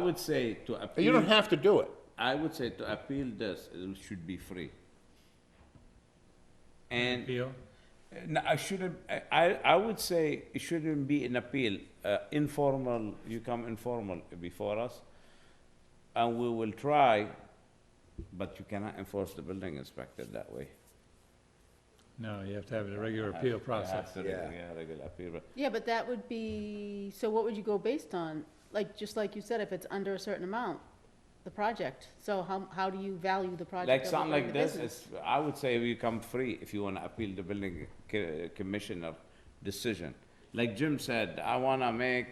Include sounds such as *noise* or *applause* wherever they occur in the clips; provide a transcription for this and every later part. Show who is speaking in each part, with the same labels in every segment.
Speaker 1: I would say to
Speaker 2: You don't
Speaker 1: appeal,
Speaker 2: have to do it.
Speaker 1: I would say to appeal this, it should be free. And,
Speaker 3: appeal?
Speaker 1: no, I shouldn't, I- I, I would say it shouldn't be an appeal, uh, informal, you come informal before us, and we will try, but you cannot enforce the building inspector that way.
Speaker 3: No, you have to have a regular appeal process.
Speaker 1: After,
Speaker 2: Yeah.
Speaker 1: yeah, regular appeal.
Speaker 4: Yeah, but that would be, so what would you go based on? Like, just like you said, if it's under a certain amount, the project, so how, how do you value the project?
Speaker 1: Like
Speaker 4: of
Speaker 1: something
Speaker 4: running
Speaker 1: like
Speaker 4: the
Speaker 1: this,
Speaker 4: business?
Speaker 1: it's, I would say we come free if you wanna appeal the building co- commissioner decision. Like Jim said, I wanna make,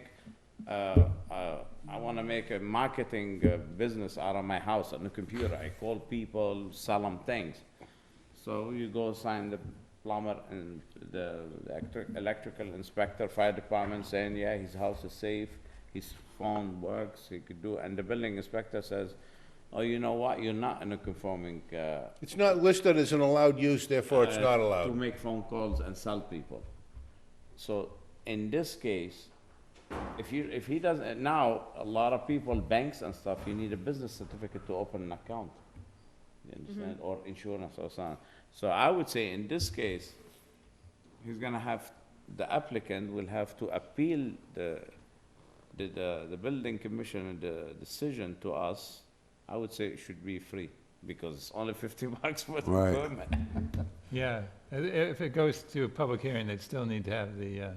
Speaker 1: uh, uh, I wanna make a marketing uh, business out of my house on the computer. I call people, sell them things. So you go sign the plumber and the electric, electrical inspector, fire department saying, yeah, his house is safe, his phone works, he could do, and the building inspector says, oh, you know what, you're not in a conforming, uh,
Speaker 2: It's not listed as an allowed use, therefore it's
Speaker 1: uh,
Speaker 2: not
Speaker 1: To
Speaker 2: allowed.
Speaker 1: make phone calls and sell people. So in this case, if you, if he doesn't, now, a lot of people, banks and stuff, you need a business certificate to open an account. You understand, or insurance or something. So I would say in this case, he's gonna have, the applicant will have to appeal the, the, the, the building commissioner, the decision to us. I would say it should be free, because it's only *laughs* fifty bucks for the
Speaker 2: Right.
Speaker 1: permit.
Speaker 3: Yeah, i- if it goes to a public hearing, they'd still need to have the, uh,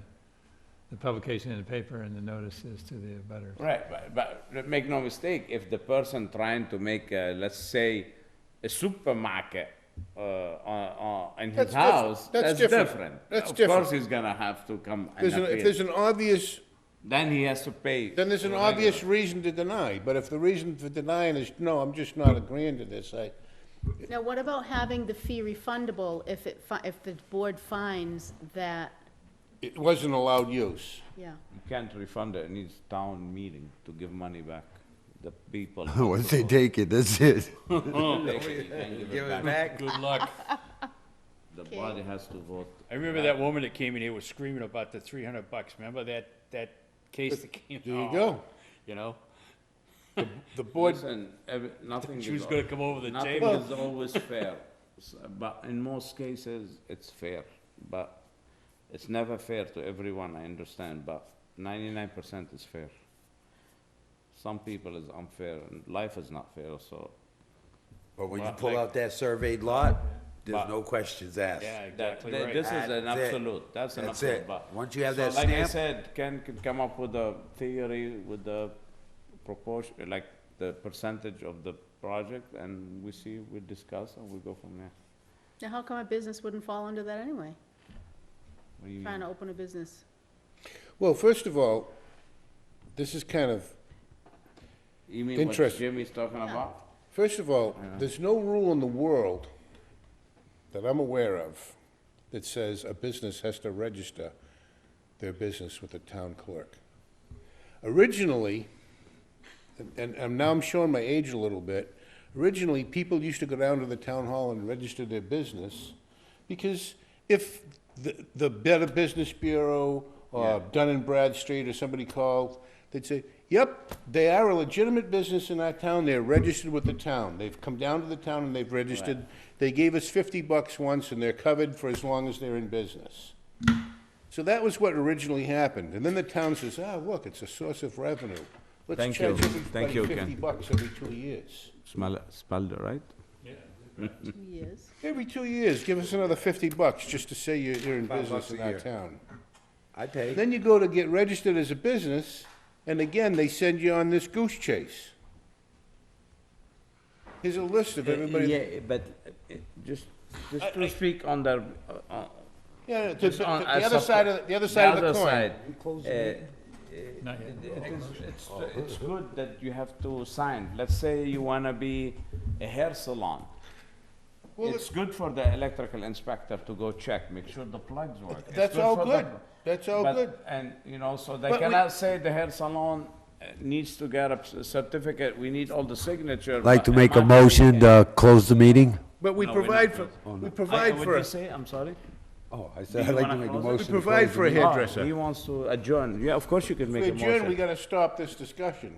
Speaker 3: the publication in the paper and the notices to the abutters.
Speaker 1: Right, but, but make no mistake, if the person trying to make, uh, let's say, a supermarket uh, on, on, in his
Speaker 2: That's diff-
Speaker 1: house,
Speaker 2: that's
Speaker 1: that's
Speaker 2: different.
Speaker 1: different.
Speaker 2: That's
Speaker 1: Of
Speaker 2: different.
Speaker 1: course, he's gonna have to come and
Speaker 2: There's an- If
Speaker 1: appeal.
Speaker 2: there's an obvious,
Speaker 1: Then he has to pay.
Speaker 2: then there's an
Speaker 1: the regular.
Speaker 2: obvious reason to deny, but if the reason for denying is, no, I'm just not agreeing to this, I,
Speaker 4: Now, what about having the fee refundable if it, fi- if the board finds that,
Speaker 2: it wasn't allowed use.
Speaker 4: yeah,
Speaker 1: You can't refund it, it needs town meeting to give money back, the *laughs* people.
Speaker 5: Once they take it, that's it.
Speaker 1: Give it back.
Speaker 6: Good luck.
Speaker 1: The body has to vote.
Speaker 6: I remember that woman that came in here was screaming about the three hundred bucks. Remember that, that case that came?
Speaker 2: There you
Speaker 6: Oh,
Speaker 2: go.
Speaker 6: You know,
Speaker 2: The board,
Speaker 1: Listen, every- nothing is.
Speaker 6: she was
Speaker 1: al-
Speaker 6: gonna come over the
Speaker 1: Nothing
Speaker 6: table. *laughs*
Speaker 1: is always fair, S- but in most cases, it's fair, but it's never fair to everyone, I understand, but ninety-nine percent is fair. Some people is unfair, and life is not fair, so
Speaker 7: But when you
Speaker 1: Lot
Speaker 7: pull
Speaker 1: like-
Speaker 7: out that surveyed lot,
Speaker 1: Lot.
Speaker 7: there's no questions asked.
Speaker 6: Yeah,
Speaker 1: that,
Speaker 6: exactly
Speaker 1: th-
Speaker 6: right.
Speaker 1: this is an
Speaker 7: That's it.
Speaker 1: absolute, that's an
Speaker 7: That's
Speaker 1: absolute,
Speaker 7: it.
Speaker 1: but.
Speaker 7: Once you have
Speaker 1: So
Speaker 7: that
Speaker 1: Like I
Speaker 7: stamp-
Speaker 1: said, Ken can come up with a theory with the proportion, like the percentage of the project, and we see, we discuss, and we go from there.
Speaker 4: now how come a business wouldn't fall under that anyway?
Speaker 1: What do you
Speaker 4: Trying
Speaker 1: mean?
Speaker 4: to open a business,
Speaker 2: well, first of all, this is kind of,
Speaker 1: You mean what
Speaker 2: Interest.
Speaker 1: Jimmy's talking about?
Speaker 2: First of all, there's no rule in the world that I'm aware of that says a business has to register their business with the town clerk. Originally, and, and now I'm showing my age a little bit, originally, people used to go down to the town hall and register their business because if the, the Better Business Bureau or Dun and Bradstreet or somebody called, they'd say, yep, they are a legitimate business in our town, they're registered with the town. They've come down to the town and they've registered. They gave us fifty bucks once and they're covered for as long as they're in business. So that was what originally happened. And then the town says, ah, look, it's a source of revenue.
Speaker 1: Thank
Speaker 2: Let's
Speaker 1: you.
Speaker 2: charge
Speaker 1: Thank you,
Speaker 2: everybody
Speaker 1: Ken.
Speaker 2: fifty bucks every two years.
Speaker 1: Smell it, spelled it right?
Speaker 4: two years?
Speaker 2: Every two years, give us another fifty bucks just to say you're, you're in
Speaker 7: Five
Speaker 2: business
Speaker 7: bucks a
Speaker 2: in our
Speaker 7: year.
Speaker 2: town.
Speaker 7: I pay.
Speaker 2: Then you go to get registered as a business, and again, they send you on this goose chase. Here's a list of everybody,
Speaker 1: Yeah, but uh, just, just to speak on the, uh, uh,
Speaker 2: yeah, the, the-
Speaker 1: just on.
Speaker 2: the
Speaker 1: as
Speaker 2: other
Speaker 1: sup-
Speaker 2: side of, the- the other side of the coin.
Speaker 1: side, Uh,
Speaker 3: Not yet.
Speaker 1: It is, it's,
Speaker 2: Oh,
Speaker 1: it's good that you have to sign. Let's say you wanna be a hair salon.
Speaker 2: Well,
Speaker 1: It's good for the electrical inspector to go check, make sure the plugs work. It's
Speaker 2: That's all
Speaker 1: for the-
Speaker 2: good, that's all
Speaker 1: but-
Speaker 2: good.
Speaker 1: And, you know, so they
Speaker 2: But we-
Speaker 1: cannot say the hair salon uh, needs to get a c- certificate, we need all the signature.
Speaker 5: Like
Speaker 1: but
Speaker 5: to make a
Speaker 1: am I gonna
Speaker 5: motion
Speaker 1: get-
Speaker 5: to close the meeting?
Speaker 2: But we
Speaker 1: No, we're not
Speaker 2: provide for,
Speaker 1: doing-
Speaker 2: we
Speaker 1: I-
Speaker 2: provide
Speaker 1: what
Speaker 2: for,
Speaker 1: did you
Speaker 2: a-
Speaker 1: say? I'm sorry?
Speaker 5: Oh, I said,
Speaker 1: Do
Speaker 5: I'd
Speaker 1: you
Speaker 5: like to
Speaker 1: wanna
Speaker 5: make a
Speaker 1: close it?
Speaker 2: we
Speaker 5: motion. to
Speaker 2: provide
Speaker 5: close
Speaker 2: for a
Speaker 1: Oh,
Speaker 2: hairdresser.
Speaker 1: He wants to adjourn. Yeah, of course you can
Speaker 2: To
Speaker 1: make a
Speaker 2: adjourn, we
Speaker 1: motion.
Speaker 2: gotta stop this discussion.